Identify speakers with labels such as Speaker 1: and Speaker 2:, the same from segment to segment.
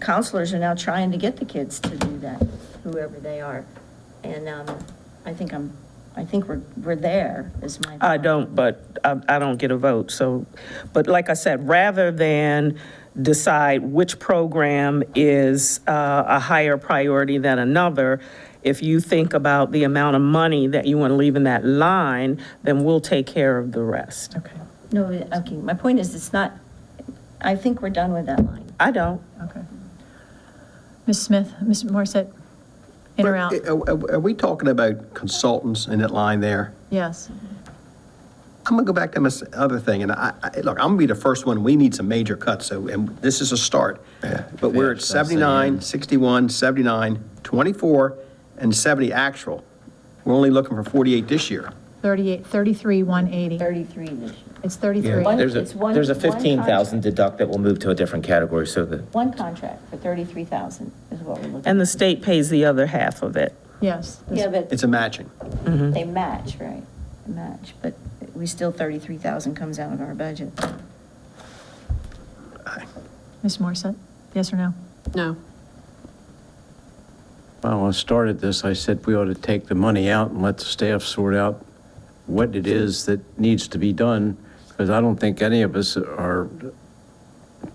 Speaker 1: counselors are now trying to get the kids to do that, whoever they are. And um, I think I'm, I think we're, we're there, is my.
Speaker 2: I don't, but I, I don't get a vote, so, but like I said, rather than decide which program is uh, a higher priority than another, if you think about the amount of money that you want to leave in that line, then we'll take care of the rest.
Speaker 3: Okay,
Speaker 1: No, okay, my point is, it's not, I think we're done with that line.
Speaker 2: I don't.
Speaker 3: okay. Ms. Smith, Ms. Morissette, in or out?
Speaker 4: Are- Are are we talking about consultants in that line there?
Speaker 3: Yes.
Speaker 4: I'm gonna go back to this other thing, and I, I- look, I'm gonna be the first one, we need some major cuts, so, and this is a start. But we're at
Speaker 5: Yeah, so I'm saying-
Speaker 4: 79, 61, 79, 24, and 70 actual. We're only looking for 48 this year.
Speaker 3: 38, 33, 180.
Speaker 1: 33 this year.
Speaker 3: It's 33.
Speaker 1: One-
Speaker 5: There's a,
Speaker 1: it's one-
Speaker 5: there's a
Speaker 1: one
Speaker 5: 15,000
Speaker 1: contract.
Speaker 5: deduct that will move to a different category, so the,
Speaker 1: One contract for 33,000 is what we're looking.
Speaker 2: And the state pays the other half of it.
Speaker 3: Yes.
Speaker 1: at. Yeah, but
Speaker 4: It's a matching.
Speaker 1: they
Speaker 2: Mhm.
Speaker 1: match, right? They Match, but we still, 33,000 comes out of our budget.
Speaker 3: Ms. Morissette, yes or no?
Speaker 6: No.
Speaker 7: Well, when I started this, I said we ought to take the money out and let the staff sort out what it is that needs to be done, because I don't think any of us are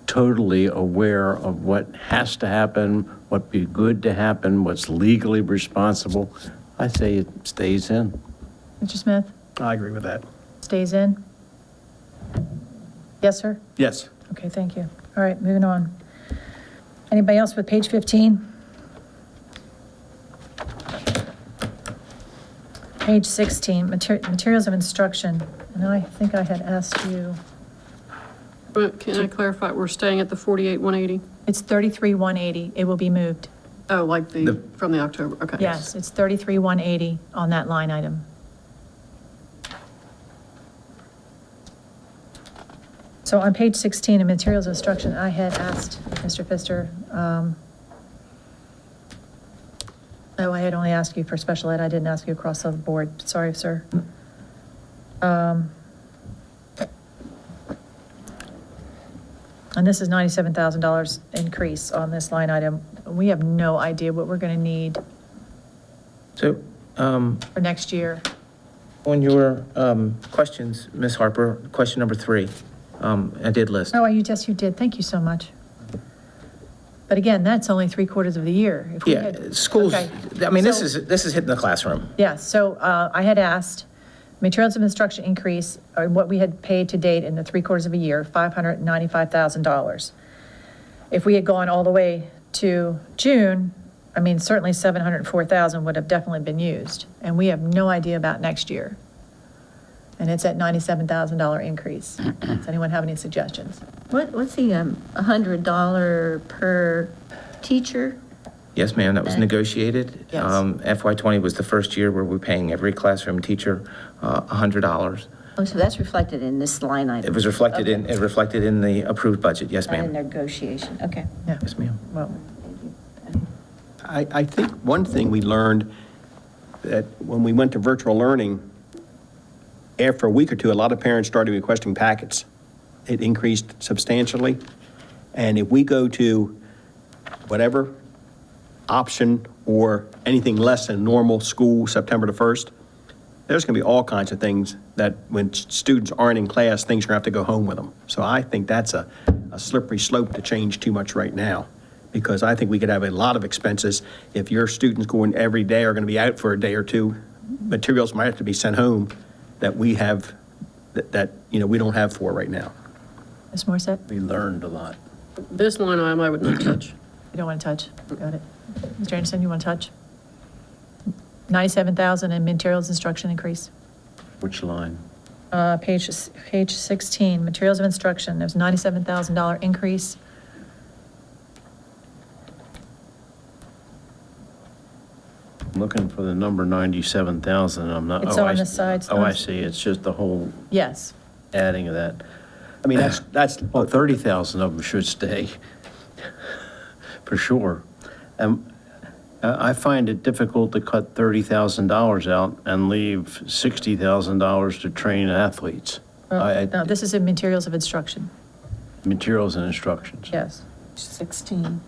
Speaker 7: totally aware of what has to happen, what be good to happen, what's legally responsible. I say it stays in.
Speaker 3: Mr. Smith,
Speaker 4: I agree with that.
Speaker 3: stays in? Yes, sir?
Speaker 4: Yes.
Speaker 3: Okay, thank you. All right, moving on. Anybody else with page 15? Page 16, mater- materials of instruction, and I think I had asked you,
Speaker 6: But can I clarify, we're staying at the 48, 180?
Speaker 3: it's 33,180, it will be moved.
Speaker 6: Oh, like the, from the October, okay.
Speaker 3: Yes, it's 33,180 on that line item. So on page 16 in materials instruction, I had asked Mr. Pfister, um, oh, I had only asked you for special ed, I didn't ask you across the board, sorry, sir. Um, And this is $97,000 increase on this line item. We have no idea what we're going to need
Speaker 8: So, um,
Speaker 3: for next year.
Speaker 8: on your, um, questions, Ms. Harper, question number three, um, I did list.
Speaker 3: Oh, you, yes, you did. Thank you so much. But again, that's only three quarters of the year. If we
Speaker 5: yeah,
Speaker 3: had-
Speaker 5: schools,
Speaker 3: okay.
Speaker 5: I mean, this
Speaker 3: So-
Speaker 5: is, this is hitting the classroom.
Speaker 3: Yeah, so uh, I had asked, materials of instruction increase, or what we had paid to date in the three quarters of a year, $595,000. If we had gone all the way to June, I mean, certainly 704,000 would have definitely been used, and we have no idea about next year. And it's at $97,000 increase. Does anyone have any suggestions?
Speaker 9: What, what's the, um, a hundred dollar per teacher?
Speaker 8: Yes, ma'am, that was negotiated.
Speaker 3: Yes.
Speaker 8: FY twenty was the first year where we're paying every classroom teacher, uh, a hundred dollars.
Speaker 1: Oh, so that's reflected in this line
Speaker 8: It
Speaker 1: item,
Speaker 8: was reflected in, it reflected in the approved budget, yes,
Speaker 1: not in
Speaker 8: ma'am.
Speaker 1: negotiation, okay.
Speaker 3: Yeah,
Speaker 8: Yes, ma'am.
Speaker 3: well,
Speaker 4: I, I think one thing we learned, that when we went to virtual learning, after a week or two, a lot of parents started requesting packets. It increased substantially. And if we go to whatever option or anything less than normal school September the 1st, there's going to be all kinds of things that when students aren't in class, things are going to have to go home with them. So I think that's a, a slippery slope to change too much right now, because I think we could have a lot of expenses. If your students going every day are going to be out for a day or two, materials might have to be sent home that we have, that, that, you know, we don't have for right now.
Speaker 3: Ms. Morissette,
Speaker 7: We learned a lot.
Speaker 6: This line item I would not touch.
Speaker 3: you don't want to touch? Got it. Mr. Anderson, you want to touch? 97,000 in materials instruction increase.
Speaker 7: Which line?
Speaker 3: Uh, Page, page 16, materials of instruction, there's $97,000 increase.
Speaker 7: I'm looking for the number 97,000, I'm not.
Speaker 3: It's
Speaker 7: oh,
Speaker 3: on
Speaker 7: I-
Speaker 3: the sides.
Speaker 7: Oh, I see, it's just the whole
Speaker 3: Yes,
Speaker 7: adding of that.
Speaker 4: I mean, that's, that's,
Speaker 7: Well, 30,000 oh, of them should stay, for sure. Um, I I find it difficult to cut $30,000 out and leave $60,000 to train athletes, I- I-
Speaker 3: no, this is in materials of instruction,
Speaker 7: materials and instructions.
Speaker 3: yes.
Speaker 2: 16.